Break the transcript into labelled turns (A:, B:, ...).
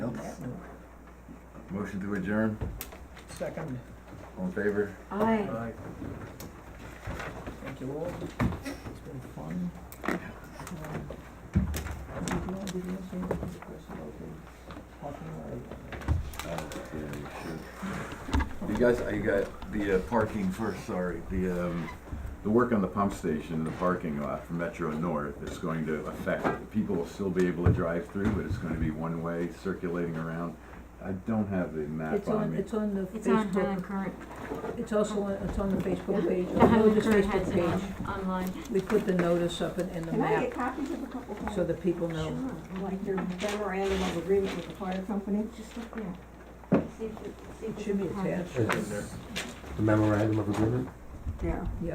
A: Motion to adjourn,
B: Second,
A: all in favor?
C: Aye.
B: thank you all. It's been fun. Um, Did you want to answer any of the questions about the parking
A: You guys, I got the uh, parking first, sorry, the, um, the work on the pump station and the parking lot for Metro North is going to affect it. People will still be able to drive through, but it's gonna be one-way circulating around. I don't have the map
D: It's
A: on
D: on,
A: me.
D: it's on the
C: It's on Highland
D: Facebook,
C: Current.
D: it's also on, it's on the Facebook page,
C: The
D: the
C: Highland
D: village's
C: Current has
D: Facebook
C: it on,
D: page.
C: online.
D: We put the notice up in, in the
E: Can I
D: map
E: get copies of a couple of
D: so
E: them?
D: that people know.
E: Like your memorandum of agreement with the fire company?
C: Just look there. See if it, see if
D: It
C: it's
D: should be
C: attached.
D: attached.
F: The memorandum of agreement?
E: Yeah.